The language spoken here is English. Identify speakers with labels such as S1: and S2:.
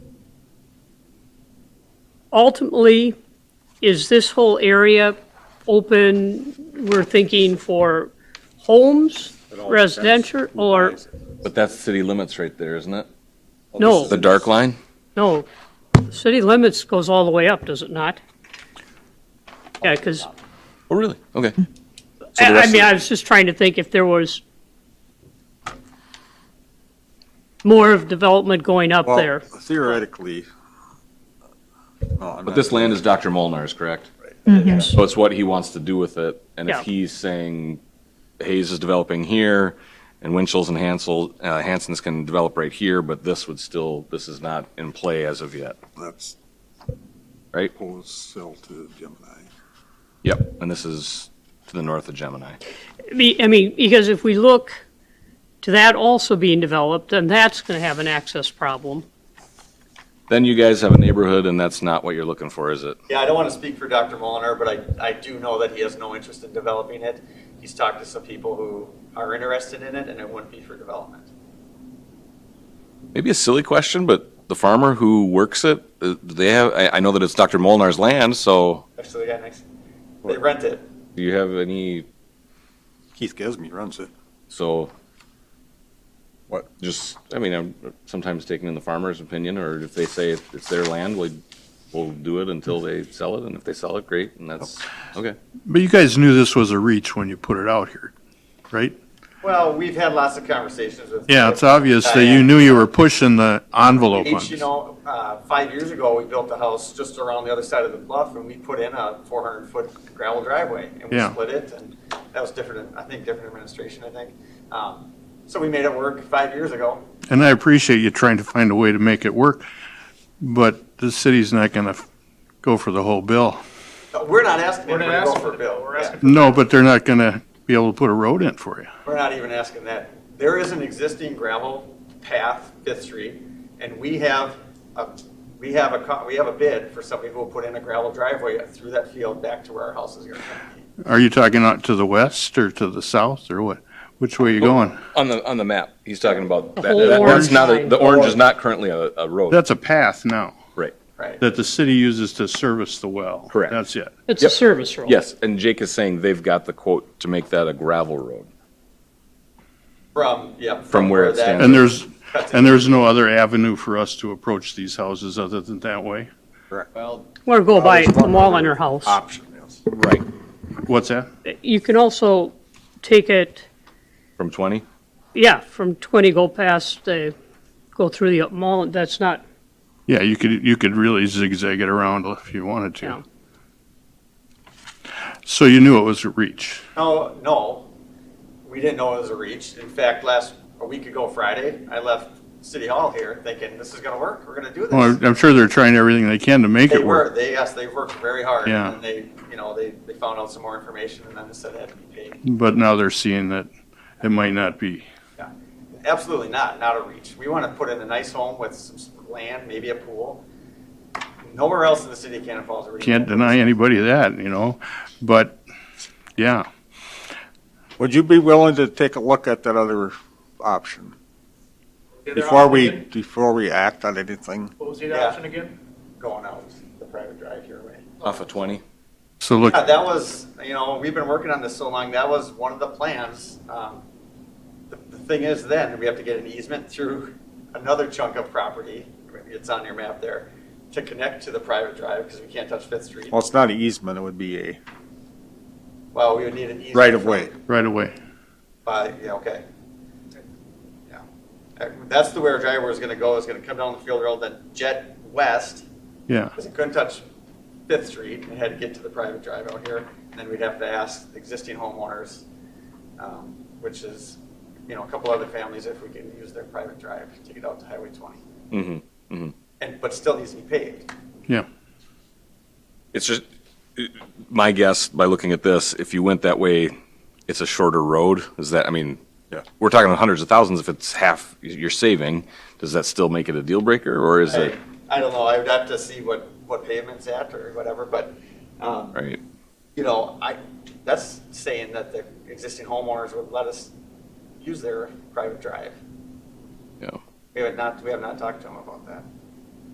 S1: ultimately, is this whole area open, we're thinking for homes, residential, or,
S2: But that's city limits right there, isn't it?
S1: no,
S2: The dark line?
S1: no. City limits goes all the way up, does it not? Yeah, because,
S2: Oh, really? Okay. So the
S1: I
S2: rest
S1: I
S2: of
S1: mean,
S2: it-
S1: I was just trying to think if there was more of development going up
S3: Well,
S1: there.
S3: Theoretically. no, I'm
S2: But
S3: not-
S2: this land is Dr. Molnar's, correct?
S3: Yes.
S2: So it's what he wants to do with it. And if
S1: Yeah.
S2: he's saying Hayes is developing here and Winchell's and Hansel, uh, Hanson's can develop right here, but this would still, this is not in play as of yet.
S3: That's.
S2: Right.
S3: Whole sell to Gemini.
S2: Yep. And this is to the north of Gemini.
S1: Be- I mean, because if we look to that also being developed, then that's going to have an access problem.
S2: Then you guys have a neighborhood and that's not what you're looking for, is it?
S4: Yeah, I don't want to speak for Dr. Molinar, but I, I do know that he has no interest in developing it. He's talked to some people who are interested in it, and it wouldn't be for development.
S2: Maybe a silly question, but the farmer who works it, uh, do they have, I, I know that it's Dr. Molnar's land, so
S4: Actually, the guy next, they rent it.
S2: do you have any,
S3: Keith Gesme runs it.
S2: so?
S3: What?
S2: Just, I mean, I'm sometimes taking in the farmer's opinion, or if they say it's their land, we, we'll do it until they sell it, and if they sell it, great, and that's, okay.
S5: But you guys knew this was a reach when you put it out here, right?
S4: Well, we've had lots of conversations with.
S5: Yeah, it's obvious that you knew you were pushing the envelope on
S4: Each, you
S5: this.
S4: know, uh, five years ago, we built a house just around the other side of the bluff, and we put in a four hundred foot gravel driveway, and we
S5: Yeah.
S4: split it, and that was different, I think, different administration, I think. Um, So we made it work five years ago.
S5: And I appreciate you trying to find a way to make it work, but the city's not gonna f- go for the whole bill.
S4: Uh, We're not asking
S6: We're not
S4: anybody to go
S6: asking
S4: for a
S6: for-
S4: bill.
S6: we're
S4: Yeah.
S6: asking
S5: No, but they're not gonna be able to put a road in for you.
S4: We're not even asking that. There is an existing gravel path, Fifth Street, and we have a, we have a, co- we have a bid for somebody who will put in a gravel driveway through that field back to where our house is going to be.
S5: Are you talking out to the west or to the south or what? Which way you going?
S2: On the, on the map, he's talking about, that,
S1: whole
S2: that- that's
S1: orange
S2: not, a-
S1: line.
S2: the orange is not currently a, a road.
S5: That's a path now
S2: Right.
S4: Right.
S5: that the city uses to service the well.
S2: Correct.
S5: That's it.
S1: It's a
S2: Yep.
S1: service road.
S2: Yes, and Jake is saying they've got the quote to make that a gravel road.
S4: From, yeah.
S2: From where it
S4: that-
S2: stands.
S5: And there's,
S4: That's it.
S5: and there's no other avenue for us to approach these houses other than that way?
S1: Or go by
S3: There's
S1: the
S3: one
S1: mall
S3: other
S1: on her house.
S3: Option, yes.
S2: Right.
S5: What's that?
S1: You can also take it,
S2: From twenty?
S1: yeah, from 20, go past the, go through the mall, that's not,
S5: Yeah, you could, you could really zigzag it around if you wanted
S1: Yeah.
S5: to. So you knew it was a reach.
S4: No, no, we didn't know it was a reach. In fact, last, a week ago Friday, I left City Hall here thinking, this is going to work, we're going to do
S5: Well,
S4: this.
S5: I'm- I'm sure they're trying everything they can to make
S4: They
S5: it
S4: were,
S5: work.
S4: they, yes, they worked very hard.
S5: Yeah.
S4: And they, you know, they, they found out some more information and then they said it had to be paid.
S5: But now they're seeing that it might not be.
S4: Absolutely not, not a reach. We want to put in a nice home with some s- land, maybe a pool. Nowhere else in the city of Cannon Falls. are we-
S5: Can't deny anybody that, you know? But, yeah.
S3: Would you be willing to take a look at that other option?
S6: The other
S3: Before
S6: option
S3: we,
S6: again?
S3: before we act on anything?
S6: What was the other
S4: Yeah.
S6: option again?
S4: Going out, the private drive here, right?
S2: Off of twenty?
S5: So look,
S4: Yeah, that was, you know, we've been working on this so long, that was one of the plans. Um, The the thing is then, we have to get an easement through another chunk of property, it's on your map there, to connect to the private drive, because we can't touch Fifth Street.
S3: Well, it's not an easement, it would be a
S4: Well, we would need an easement.
S3: right of way.
S5: right away.
S4: By, yeah, okay. Yeah. Uh, That's the way our driver was gonna go, is gonna come down the field road, then jet west,
S5: Yeah.
S4: because it couldn't touch Fifth Street, and had to get to the private drive out here, and then we'd have to ask the existing homeowners, um, which is, you know, a couple other families if we can use their private drive to get out to Highway twenty,
S2: Mm-hmm.
S4: and, but still needs to be paved.
S2: It's just, my guess by looking at this, if you went that way, it's a shorter road. Is that, I mean,
S3: Yeah.
S2: we're talking hundreds of thousands. If it's half you're saving, does that still make it a deal breaker or is
S4: I,
S2: it,
S4: I don't know, I would have to see what, what pavement's at or whatever, but, um,
S2: right?
S4: you know, I, that's saying that the existing homeowners would let us use their private drive.
S2: Yeah.
S4: We have not, we have not talked to them about that.